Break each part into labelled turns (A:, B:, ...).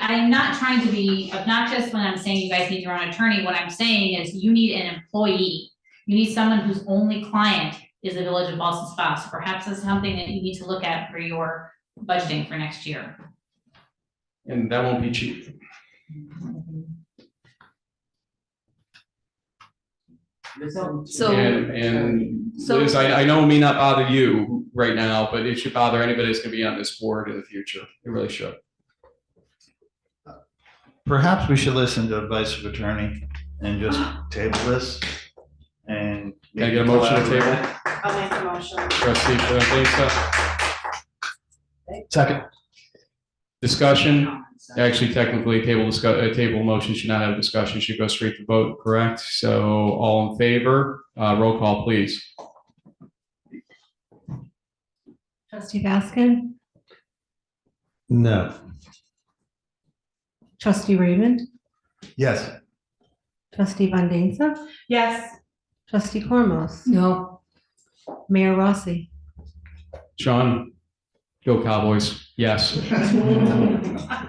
A: I'm not trying to be obnoxious when I'm saying you guys need your own attorney. What I'm saying is you need an employee. You need someone whose only client is the village of Boston Spa. So perhaps that's something that you need to look at for your budgeting for next year.
B: and that won't be cheap.
C: So-
B: And, and
C: So-
B: Liz, I, I know it may not bother you right now, but it should bother anybody that's gonna be on this board in the future. It really should.
D: Perhaps we should listen to advice of attorney and just table this and.
B: Can I get a motion to table?
E: I'll make the motion.
B: Trustee Flanesa,
D: Second.
B: discussion? Actually, technically, table discuss, uh, table motion should not have a discussion, should go straight to vote, correct? So all in favor, uh, roll call, please.
F: Trustee Baskin?
D: No.
F: Trustee Raymond?
D: Yes.
F: Trustee Van Denza?
E: Yes,
F: Trustee Cormos? No. Mayor Rossi?
B: Sean? Go Cowboys, yes.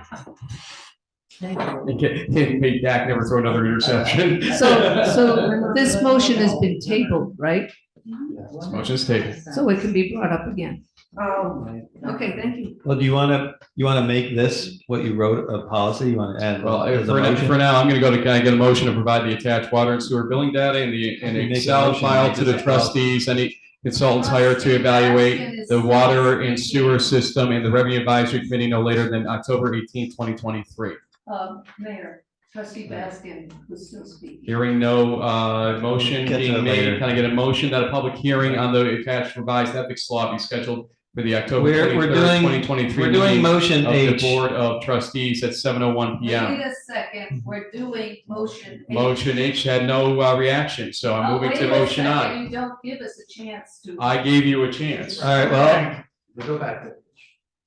B: And Can, can make Dak never throw another interception.
G: So, so this motion has been tabled, right?
B: This Motion's tabled.
G: So it can be brought up again.
E: um,
G: Okay, thank you.
H: Well, do you want to, you want to make this what you wrote, a policy? You want to add?
B: Well,
H: as a
B: for now,
H: motion?
B: for now, I'm gonna go to, can I get a motion to provide the attached water and sewer billing data and the, and
H: You make a
B: Excel
H: motion,
B: file
H: make
B: to the
H: it-
B: trustees, any consultants hired to evaluate the water and sewer system and the revenue advisory committee no later than October eighteenth, twenty twenty-three.
G: Uh, Mayor, trustee Baskin was still speaking.
B: Hearing no, uh, motion
H: Get to that
B: being made,
H: later.
B: can I get a motion that a public hearing on the attached revised ethics law be scheduled for the October
H: We're- we're
B: twenty-third,
H: doing-
B: twenty twenty-three?
H: We're doing motion
B: Of the
H: H.
B: Board of Trustees at seven oh one
G: Wait
B: P M.
G: a second, we're doing motion. eight.
B: Motion H had no uh, reaction, so I'm
G: Oh,
B: moving
G: wait
B: to
G: a
B: motion
G: second,
B: I.
G: You don't give us a chance to.
B: I gave you a chance.
H: All right, well,
D: Go back to.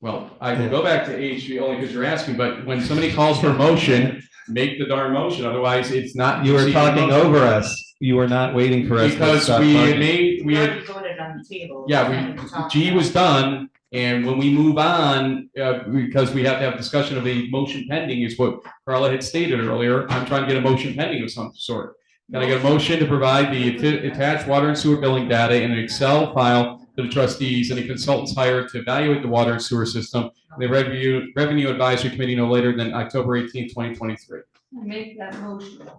B: Well, I can go back to H only because you're asking, but when somebody calls for a motion, make the darn motion, otherwise it's not.
H: you were
B: proceeding
H: talking
B: motion.
H: over us. You were not waiting for us. to
B: Because
H: stop
B: we
H: talking.
B: made, we
E: we
B: had,
E: already voted on the table.
B: yeah, we, G was done. And when we move on, uh, because we have to have discussion of a motion pending is what Carla had stated earlier. I'm trying to get a motion pending of some sort. Can I get a motion to provide the atti- attached water and sewer billing data in an Excel file to the trustees and the consultants hired to evaluate the water and sewer system? and The revenue, revenue advisory committee no later than October eighteenth, twenty twenty-three.
G: Make that motion.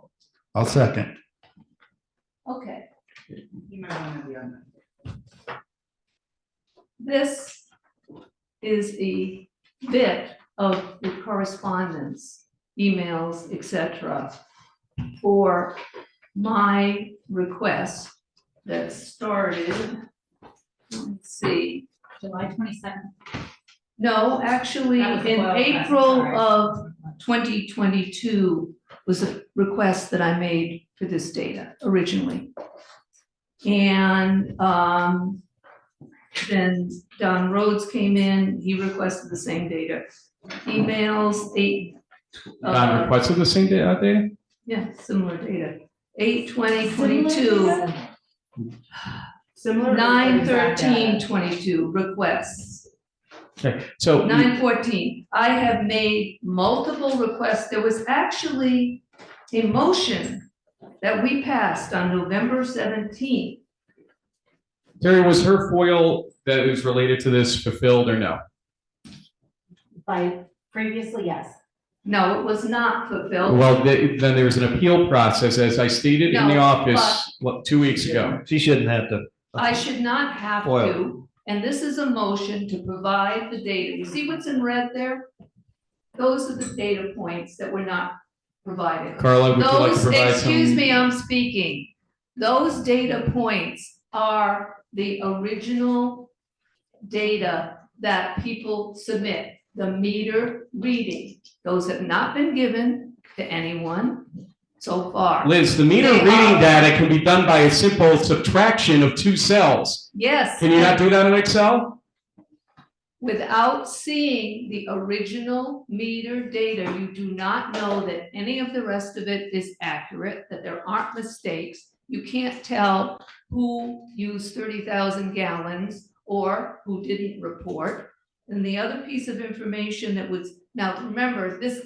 D: I'll second.
G: Okay,
E: You might wanna be on
G: this is a bit of the correspondence, emails, et cetera, for my request that started, let's see,
A: July twenty-seventh.
G: no, actually,
A: That was
G: in
A: well, I'm
G: April
A: sorry.
G: of twenty twenty-two was a request that I made for this data originally. And, um, then Don Rhodes came in, he requested the same data. Emails, eight. uh,
B: Don requested the same da- uh, data?
G: Yeah, similar data, eight twenty twenty-two,
E: Similar.
G: nine thirteen twenty-two requests.
B: So you-
G: Nine fourteen, I have made multiple requests, there was actually a motion that we passed on November seventeenth.
B: Terry, was her foil that is related to this fulfilled or no?
I: By previously, yes.
G: No, it was not fulfilled.
B: Well, the- then there was an appeal process, as I stated in the
G: No,
B: office, what, two weeks ago.
H: She shouldn't have to.
G: I should not have
H: Oil.
G: to, and this is a motion to provide the data, you see what's in red there? Those are the data points that were not provided.
B: Carla, would you like to
G: Those,
B: provide some?
G: excuse me, I'm speaking. Those data points are the original data that people submit, the meter reading. Those have not been given to anyone so far.
B: Liz, the meter
G: They um,
B: reading
G: are-
B: data can be done by a simple subtraction of two cells.
G: Yes,
B: Can you not do that in Excel?
G: without seeing the original meter data, you do not know that any of the rest of it is accurate, that there aren't mistakes. You can't tell who used thirty thousand gallons or who didn't report. And the other piece of information that was Now, remember, this